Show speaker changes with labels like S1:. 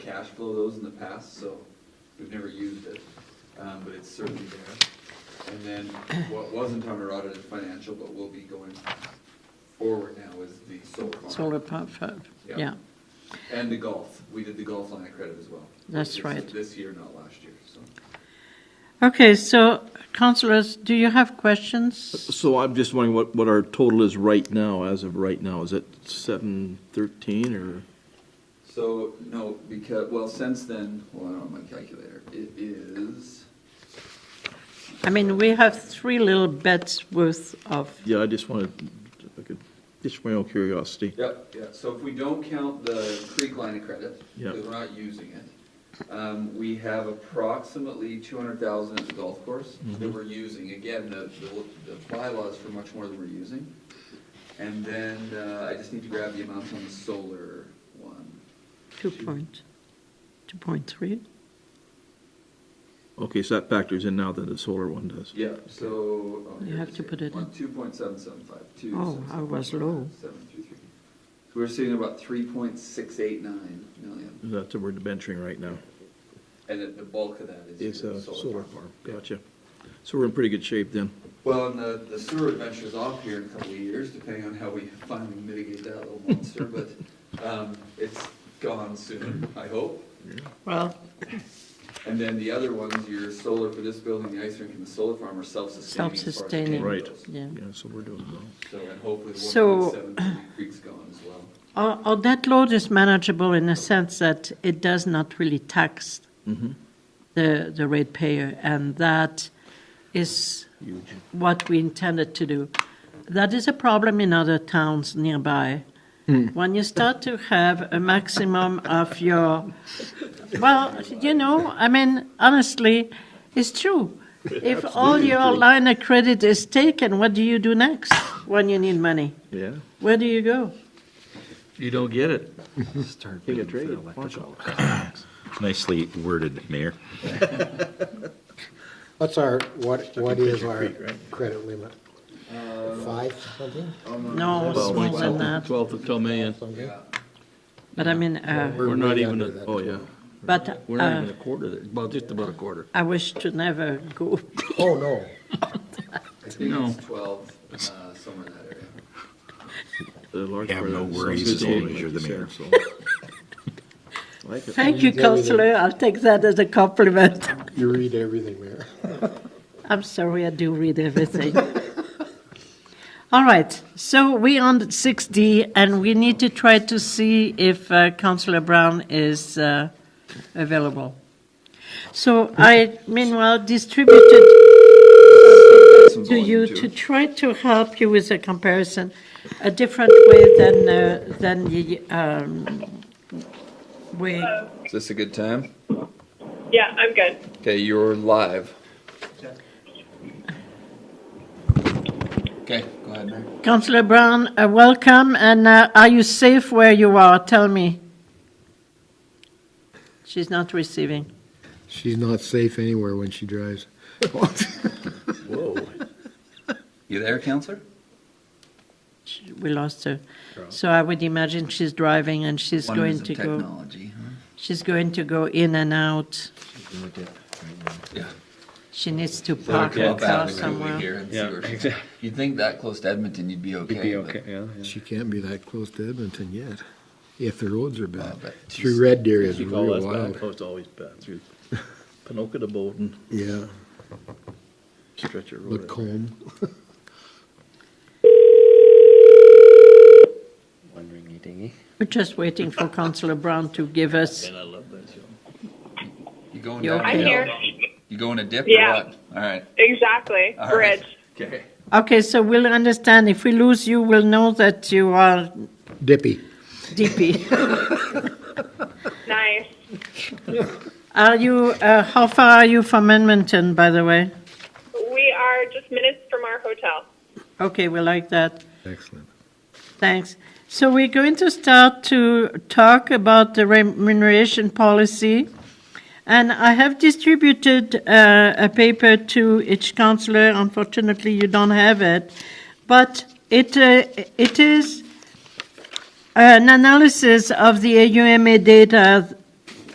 S1: cash flow those in the past, so we've never used it, um, but it's certainly there. And then what wasn't under audit is financial, but will be going forward now is the solar farm.
S2: solar pump, fund.
S1: Yeah.
S2: yeah.
S1: And the golf, we did the golf line of credit as well.
S2: That's
S1: This-
S2: right.
S1: This year, not last year, so.
S2: Okay, so councillors, do you have questions?
S3: So I'm just wondering what, what our total is right now, as of right now. Is it seven thirteen or?
S1: So, no, because, well, since then, well, I don't have my calculator, it is,
S2: I mean, we have three little bets worth of,
S3: Yeah, I just wanted, I could, just my own curiosity.
S1: yep, yeah, so if we don't count the creek line of credit,
S3: Yep.
S1: because we're not using it, um, we have approximately two hundred thousand at the golf course
S3: Mm-hmm.
S1: that we're using, again, the, the, the bylaws for much more than we're using. And then, uh, I just need to grab the amounts on the solar one.
S2: two point, two point three.
S3: Okay, so that factors in now that the solar one does.
S1: Yeah, so. oh,
S2: You
S1: here
S2: have
S1: is
S2: to
S1: here.
S2: put it
S1: One,
S2: in.
S1: 2.775, two
S2: Oh,
S1: seven
S2: I was
S1: seven
S2: low.
S1: seven two three. So we're sitting at about 3.689 million,
S3: That's what we're venturing right now.
S1: and it- the bulk of that is
S3: It's
S1: your
S3: a
S1: solar
S3: solar
S1: farm.
S3: farm. Gotcha. So we're in pretty good shape then.
S1: Well, and the, the sewer adventure's off here in a couple of years, depending on how we finally mitigate that little monster, but, um, it's gone soon, I hope.
S2: Well,
S1: And then the other ones, your solar for this building, the ice rink, and the solar farm are self-sustaining. as far as the
S2: Self-sustaining.
S1: name
S3: Right.
S1: goes.
S2: yeah.
S3: Yeah, so we're doing well.
S1: So, and hopefully the
S2: So-
S1: 1.7 creek's gone as well.
S2: Our, our debt load is manageable in the sense that it does not really tax
S3: Mm-hmm.
S2: the, the rate payer, and that is
S3: Huge.
S2: what we intended to do. That is a problem in other towns nearby.
S3: Hmm.
S2: When you start to have a maximum of your, well, you know, I mean, honestly, it's true. If all your line of credit is taken, what do you do next when you need money?
S3: Yeah.
S2: Where do you go?
S3: You don't get it.
S4: Start
S3: Take a
S4: bidding for
S3: trade.
S4: electrical.
S5: Nicely worded, Mayor.
S4: What's our, what, what is
S3: Fisher
S4: our
S3: Creek, right?
S4: credit limit?
S1: Uh,
S4: Five something?
S2: No, smaller than that.
S3: Twelve to twelve million.
S4: Something?
S1: Yeah.
S2: But I mean, uh,
S3: We're not
S4: way
S3: even,
S4: under
S3: a-
S4: that
S3: oh yeah.
S4: 12.
S2: but
S3: We're not
S2: uh,
S3: even a quarter, there. well, just about a quarter.
S2: I wish to never go.
S4: Oh, no.
S1: I think it's 12, uh, somewhere in that area.
S3: The large
S5: Have
S3: part of
S5: no
S3: that is
S5: worries as long as
S3: self-sustaining,
S5: you're
S3: like
S5: the
S3: you
S5: mayor.
S3: said, so. Like it.
S2: Thank you,
S4: Did everything.
S2: councillor. I'll take that as a compliment.
S4: You read everything, Mayor.
S2: I'm sorry, I do read everything. All right, so we on six D, and we need to try to see if uh, councillor Brown is uh, available. So I meanwhile distributed to you to try to help you with a comparison, a different way than, uh, than the um, way.
S6: Is this a good time?
S7: Yeah, I'm good.
S6: Okay, you're live. Okay, go ahead, Mayor.
S2: Councillor Brown, uh, welcome, and uh, are you safe where you are? Tell me. She's not receiving.
S4: She's not safe anywhere when she drives.
S1: You there, counselor?
S2: She- We lost her. So I would imagine she's driving and she's going to go,
S1: technology,
S2: she's going to go in and out.
S1: Yeah.
S2: She needs to park her car somewhere.
S1: Yeah. You'd think that close to Edmonton, you'd be okay. but-
S4: She can't be that close to Edmonton yet, if the roads are
S1: Oh,
S4: bad.
S1: but she's-
S4: Through Red Deer is
S3: You call that
S4: real
S3: bad?
S4: wild.
S3: Oh, it's always bad through Pinoka to Bowden,
S4: Yeah,
S3: stretch of road.
S4: Lacombe.
S2: We're just waiting for Councillor Brown to give us,
S3: And I love that show.
S6: You going
S2: You're
S6: down?
S7: I'm
S6: a hill?
S7: here.
S6: You going a dip or
S7: Yeah.
S6: what? All right.
S7: Exactly.
S6: All right.
S7: Bridge.
S6: Okay.
S2: okay, so we'll understand. If we lose you, we'll know that you are
S4: Dippy.
S2: DP.
S7: Nice.
S2: Are you, uh, how far are you from Edmonton, by the way?
S7: We are just minutes from our hotel.
S2: Okay, we like that.
S4: Excellent.
S2: Thanks. So we're going to start to talk about the remuneration policy. And I have distributed uh, a paper to each councillor. Unfortunately, you don't have it. But it, uh, it is an analysis of the AUMA data